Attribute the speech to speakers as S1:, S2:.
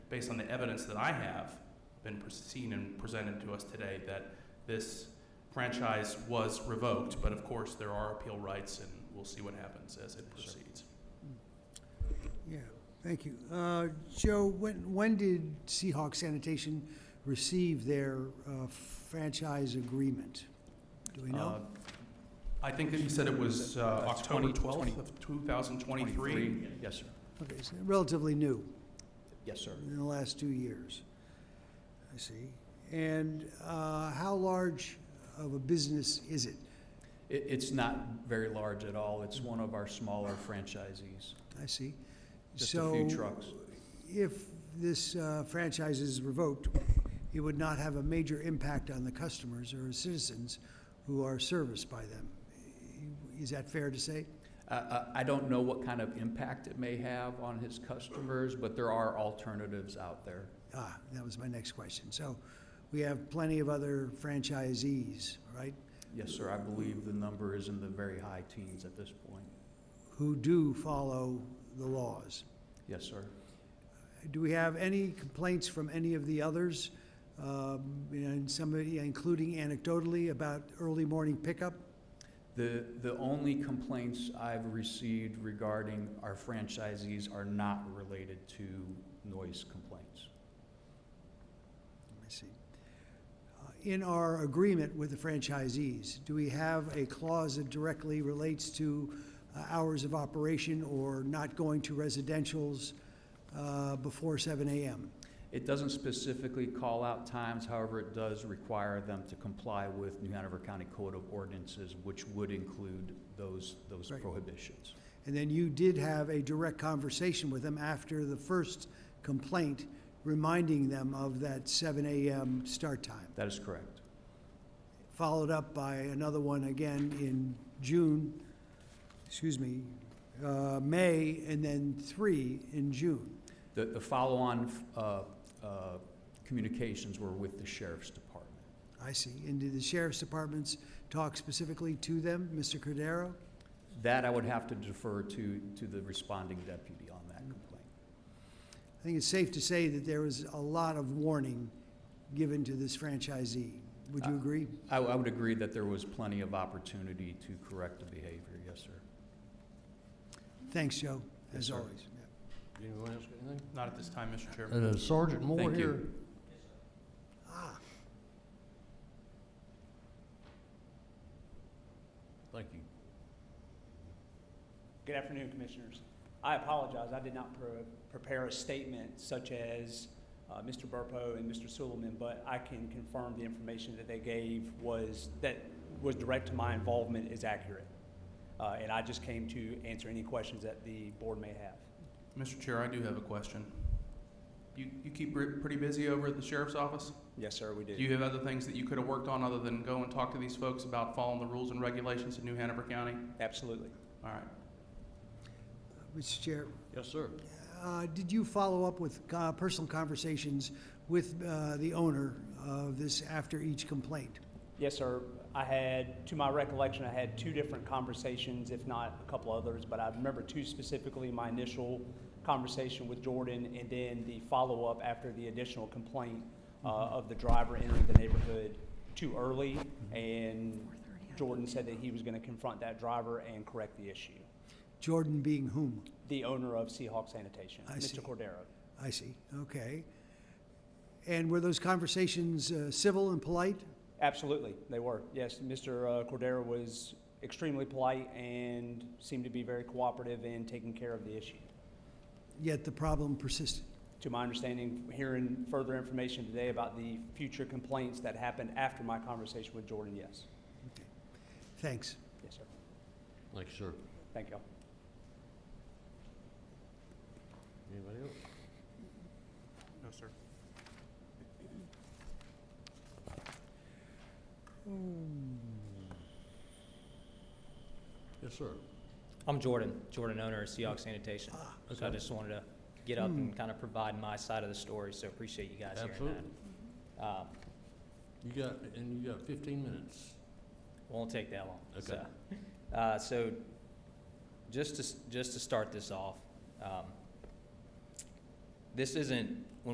S1: based on the evidence that I have been pres- seen and presented to us today, that this franchise was revoked, but of course, there are appeal rights, and we'll see what happens as it
S2: Sure.
S1: proceeds.
S3: Yeah, thank you. Uh, Joe, when, when did Seahawk Sanitation receive their uh, franchise agreement? Do we
S1: Uh,
S3: know?
S1: I think that you said it was uh,
S2: Uh,
S1: October
S2: 20
S1: 12th of 2023.
S2: Yes, sir.
S3: Okay, so relatively new,
S2: Yes, sir.
S3: in the last two years. I see. And uh, how large of a business is it?
S2: It, it's not very large at all. It's one of our smaller franchisees.
S3: I see.
S2: Just a few
S3: So,
S2: trucks.
S3: if this uh, franchise is revoked, it would not have a major impact on the customers or citizens who are serviced by them. Is that fair to say?
S2: I, I, I don't know what kind of impact it may have on his customers, but there are alternatives out there.
S3: Ah, that was my next question. So we have plenty of other franchisees, right,
S2: Yes, sir. I believe the number is in the very high teens at this point.
S3: who do follow the laws.
S2: Yes, sir.
S3: Do we have any complaints from any of the others? Um, and somebody, including anecdotally, about early morning pickup?
S2: The, the only complaints I've received regarding our franchisees are not related to noise complaints.
S3: I see. Uh, In our agreement with the franchisees, do we have a clause that directly relates to uh, hours of operation or not going to residentials uh, before 7 a.m.?
S2: It doesn't specifically call out times, however, it does require them to comply with New Hanover County Code of Ordinances, which would include those, those
S3: Right.
S2: prohibitions.
S3: And then you did have a direct conversation with them after the first complaint, reminding them of that 7 a.m. start time,
S2: That is correct.
S3: followed up by another one again in June, excuse me, uh, May, and then three in June.
S2: The, the follow-on, uh, uh, communications were with the sheriff's department.
S3: I see. And did the sheriff's departments talk specifically to them, Mr. Cordero?
S2: That I would have to defer to, to the responding deputy on that complaint.
S3: I think it's safe to say that there was a lot of warning given to this franchisee. Would you
S2: Uh,
S3: agree?
S2: I, I would agree that there was plenty of opportunity to correct the behavior, yes, sir.
S3: Thanks, Joe,
S2: Yes,
S3: as
S2: sir.
S3: always. Yeah.
S4: Anyone else got anything?
S1: Not at this time, Mr. Chairman.
S4: And is Sergeant Moore
S2: Thank you.
S4: here?
S3: Ah,
S4: Thank you.
S5: Good afternoon, Commissioners. I apologize, I did not pre- prepare a statement such as uh, Mr. Burpo and Mr. Suleman, but I can confirm the information that they gave was, that was direct to my involvement is accurate. Uh, And I just came to answer any questions that the board may have.
S1: Mr. Chair, I do have a question. You, you keep re- pretty busy over at the sheriff's office?
S5: Yes, sir, we do.
S1: Do you have other things that you could have worked on other than go and talk to these folks about following the rules and regulations in New Hanover County?
S5: Absolutely.
S1: All right.
S3: Mr. Chair,
S4: Yes, sir.
S3: uh, did you follow up with uh, personal conversations with uh, the owner of this after each complaint?
S5: Yes, sir. I had, to my recollection, I had two different conversations, if not a couple others, but I remember two specifically, my initial conversation with Jordan and then the follow-up after the additional complaint uh,
S3: Mm-hmm.
S5: of the driver entering the neighborhood too early.
S3: Mm-hmm.
S5: And Jordan said that he was going to confront that driver and correct the issue.
S3: Jordan being whom?
S5: The owner of Seahawk Sanitation,
S3: I see.
S5: Mr. Cordero.
S3: I see, okay. And were those conversations uh, civil and polite?
S5: Absolutely, they were. Yes, Mr. uh, Cordero was extremely polite and seemed to be very cooperative in taking care of the issue.
S3: Yet the problem persisted.
S5: To my understanding, hearing further information today about the future complaints that happened after my conversation with Jordan, yes.
S3: Thanks.
S5: Yes, sir.
S4: Thank you, sir.
S5: Thank y'all.
S4: Anybody else?
S1: No, sir.
S4: Yes, sir.
S6: I'm Jordan, Jordan owner of Seahawks Sanitation. So I just wanted to get
S5: Hmm.
S6: up and kind of provide my side of the story, so appreciate you guys hearing
S4: Absolutely.
S6: that. Um,
S4: You got, and you got fifteen minutes.
S6: Won't take that long.
S4: Okay.
S6: So, uh, so just to, s- just to start this off, um, this isn't, when